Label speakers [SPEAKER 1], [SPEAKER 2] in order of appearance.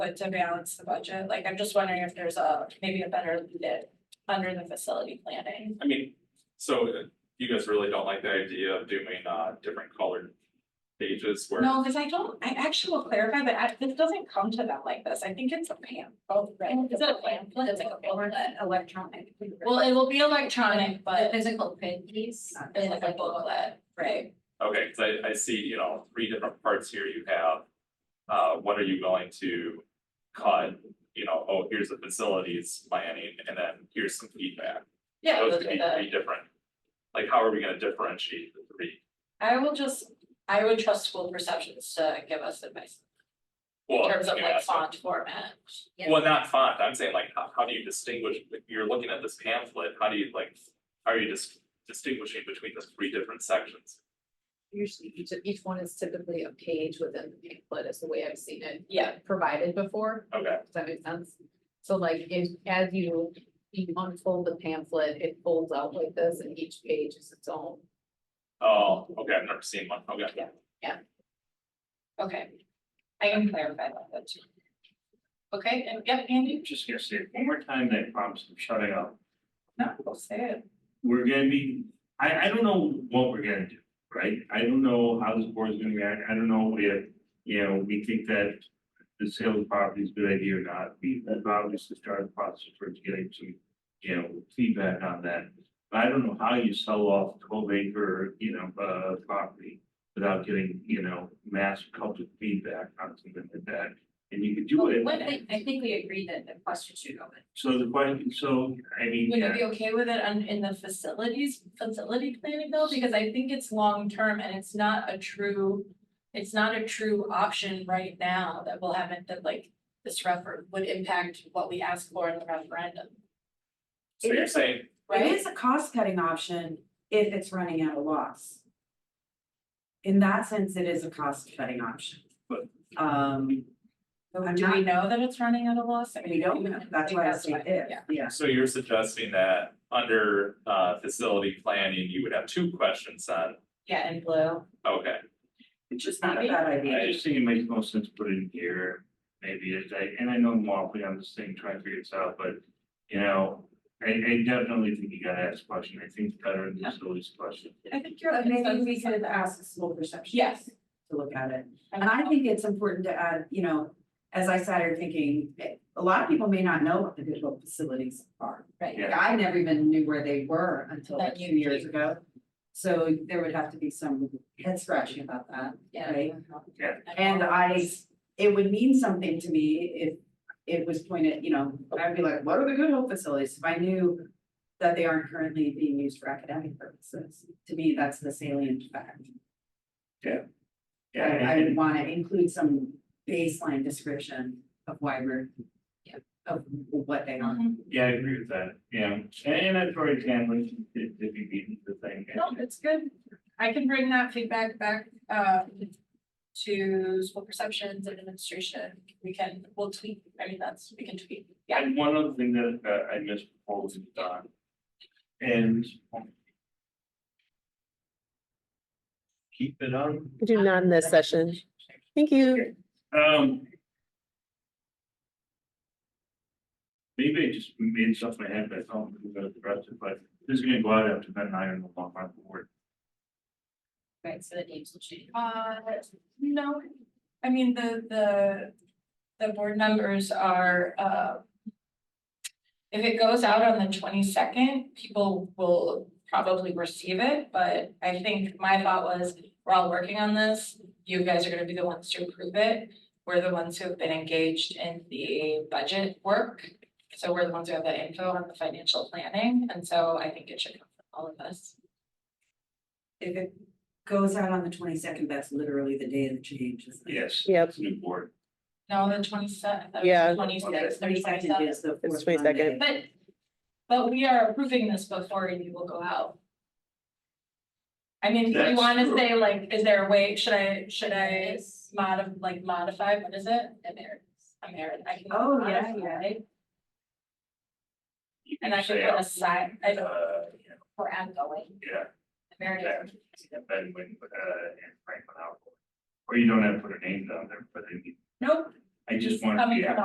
[SPEAKER 1] but to balance the budget, like I'm just wondering if there's a, maybe a better lead under the facility planning.
[SPEAKER 2] I mean, so uh, you guys really don't like the idea of doing uh different colored pages where.
[SPEAKER 1] No, because I don't, I actually will clarify, but I, this doesn't come to them like this, I think it's a pam, oh, right, is it a pamphlet? It's like a booklet.
[SPEAKER 3] Electronic.
[SPEAKER 1] Well, it will be electronic, but
[SPEAKER 3] physical print piece.
[SPEAKER 1] it's like a booklet, right?
[SPEAKER 2] Okay, cause I I see, you know, three different parts here you have. Uh, what are you going to cut? You know, oh, here's the facilities planning and then here's some feedback.
[SPEAKER 1] Yeah,
[SPEAKER 2] Those
[SPEAKER 1] those
[SPEAKER 2] could
[SPEAKER 1] are
[SPEAKER 2] be
[SPEAKER 1] the-
[SPEAKER 2] three different. Like, how are we gonna differentiate the three?
[SPEAKER 1] I will just, I would trust school perceptions to give us advice in
[SPEAKER 2] Well,
[SPEAKER 1] terms of
[SPEAKER 2] you
[SPEAKER 1] like
[SPEAKER 2] asked-
[SPEAKER 1] font format.
[SPEAKER 2] Well, not font, I'm saying like, how how do you distinguish, like, you're looking at this pamphlet, how do you like, how are you dis- distinguishing between the three different sections?
[SPEAKER 3] Usually each, each one is typically a page within the pamphlet is the way I've seen it
[SPEAKER 1] Yeah,
[SPEAKER 3] provided before.
[SPEAKER 2] Okay,
[SPEAKER 3] Does that make sense? So like if, as you, you unfold the pamphlet, it folds out like this and each page is its own.
[SPEAKER 2] oh, okay, I've never seen one, okay.
[SPEAKER 1] okay. I can clarify that too. Okay, and yep, Andy?
[SPEAKER 4] just gonna say it one more time, then I promise I'm shutting up.
[SPEAKER 1] No, we'll say it.
[SPEAKER 4] We're gonna be, I I don't know what we're gonna do, right? I don't know how this board's gonna react, I don't know if, you know, we think that. The sale of property is a good idea or not, we have obviously started the process towards getting some, you know, feedback on that. But I don't know how you sell off twelve acre, you know, uh property without getting, you know, mass public feedback on something like that. And you could do it,
[SPEAKER 1] I think we agreed that the question should go in.
[SPEAKER 4] so the question, so I mean.
[SPEAKER 1] Would you
[SPEAKER 4] yeah.
[SPEAKER 1] be okay with it on, in the facilities, facility planning though? Because I think it's long-term and it's not a true, it's not a true option right now that will have it that like this refer, would impact what we ask for in the referendum,
[SPEAKER 2] So
[SPEAKER 5] It
[SPEAKER 2] you're
[SPEAKER 5] is-
[SPEAKER 2] saying,
[SPEAKER 1] right?
[SPEAKER 5] It is a cost cutting option if it's running at a loss. In that sense, it is a cost cutting option.
[SPEAKER 4] But-
[SPEAKER 5] Um, I'm
[SPEAKER 1] Do we
[SPEAKER 5] not,
[SPEAKER 1] know that it's running at a loss? I mean,
[SPEAKER 5] we don't know, that's why I say
[SPEAKER 1] think
[SPEAKER 5] if,
[SPEAKER 1] that's why,
[SPEAKER 5] yeah.
[SPEAKER 2] so you're suggesting that under uh facility planning, you would have two questions on,
[SPEAKER 1] Yeah, yeah, in blue.
[SPEAKER 2] okay.
[SPEAKER 5] It's just not a bad idea.
[SPEAKER 4] I just think it makes most sense to put it in here, maybe, as I, and I know I'm waffling on this thing, trying to figure this out, but, you know, I, I definitely think you gotta ask a question, I think it's better than just always question.
[SPEAKER 1] I think you're.
[SPEAKER 5] But maybe we could ask the school perception.
[SPEAKER 1] Yes.
[SPEAKER 5] To look at it. And I think it's important to add, you know, as I sat here thinking, eh, a lot of people may not know what the digital facilities are.
[SPEAKER 1] Right.
[SPEAKER 5] Like, I never even knew where they were until like
[SPEAKER 1] That
[SPEAKER 5] two
[SPEAKER 1] you
[SPEAKER 5] years
[SPEAKER 1] knew.
[SPEAKER 5] ago. So there would have to be some head scratching about that, right? And I, it would mean something to me if it was pointed, you know, I'd be like, what are the Good Hope facilities? If I knew that they aren't currently being used for academic purposes, to me, that's the salient fact. I, I would wanna include some baseline description of why we're,
[SPEAKER 3] Yeah.
[SPEAKER 5] of what they are.
[SPEAKER 1] Mhm.
[SPEAKER 4] Yeah, I agree with that, yeah, and that's where it can, like, if, if you beat the thing.
[SPEAKER 5] Oh,
[SPEAKER 1] No, it's good. I can bring that feedback back uh to school perceptions and administration. We can, we'll tweak, I mean, that's, we can tweak, yeah.
[SPEAKER 4] And one other thing that uh, I missed before was done. And. Keep it on.
[SPEAKER 6] Do not in this session. Thank you.
[SPEAKER 4] Um. Maybe I just made stuff in my head, but I don't think about the rest of it, but this is gonna go out after Ben and I are no longer on the board.
[SPEAKER 3] Right, so the names will change.
[SPEAKER 1] Uh, no, I mean, the, the, the board members are, uh. If it goes out on the twenty-second, people will probably receive it, but I think my thought was, we're all working on this. You guys are gonna be the ones to approve it. We're the ones who have been engaged in the budget work. So we're the ones who have the info on the financial planning, and so I think it should come from all of us.
[SPEAKER 5] If it goes out on the twenty second, that's literally the day of the change, isn't it?
[SPEAKER 4] Yes.
[SPEAKER 6] Yep.
[SPEAKER 4] It's a new board.
[SPEAKER 1] No, the twenty-seventh,
[SPEAKER 6] Yeah.
[SPEAKER 1] twenty-sixth,
[SPEAKER 5] Twenty second is the
[SPEAKER 6] It's
[SPEAKER 5] fourth
[SPEAKER 6] 22nd.
[SPEAKER 5] Monday.
[SPEAKER 1] But, but we are approving this before you will go out. I mean, do you
[SPEAKER 4] That's
[SPEAKER 1] wanna
[SPEAKER 4] true.
[SPEAKER 1] say like, is there a way, should I, should I modif- like modify, what is it? Emeritus. Emeritus, I can.
[SPEAKER 5] Oh, yeah,
[SPEAKER 1] modify.
[SPEAKER 4] You
[SPEAKER 1] And I
[SPEAKER 4] say,
[SPEAKER 1] should put a sign, I don't,
[SPEAKER 4] Uh, yeah,
[SPEAKER 1] for outgoing,
[SPEAKER 4] yeah,
[SPEAKER 1] emeritus.
[SPEAKER 4] and Ben when, uh, and Frank went out. Or you don't have to put a name down there, but they need.
[SPEAKER 1] Nope,
[SPEAKER 4] I just want to
[SPEAKER 1] Coming
[SPEAKER 4] be
[SPEAKER 1] from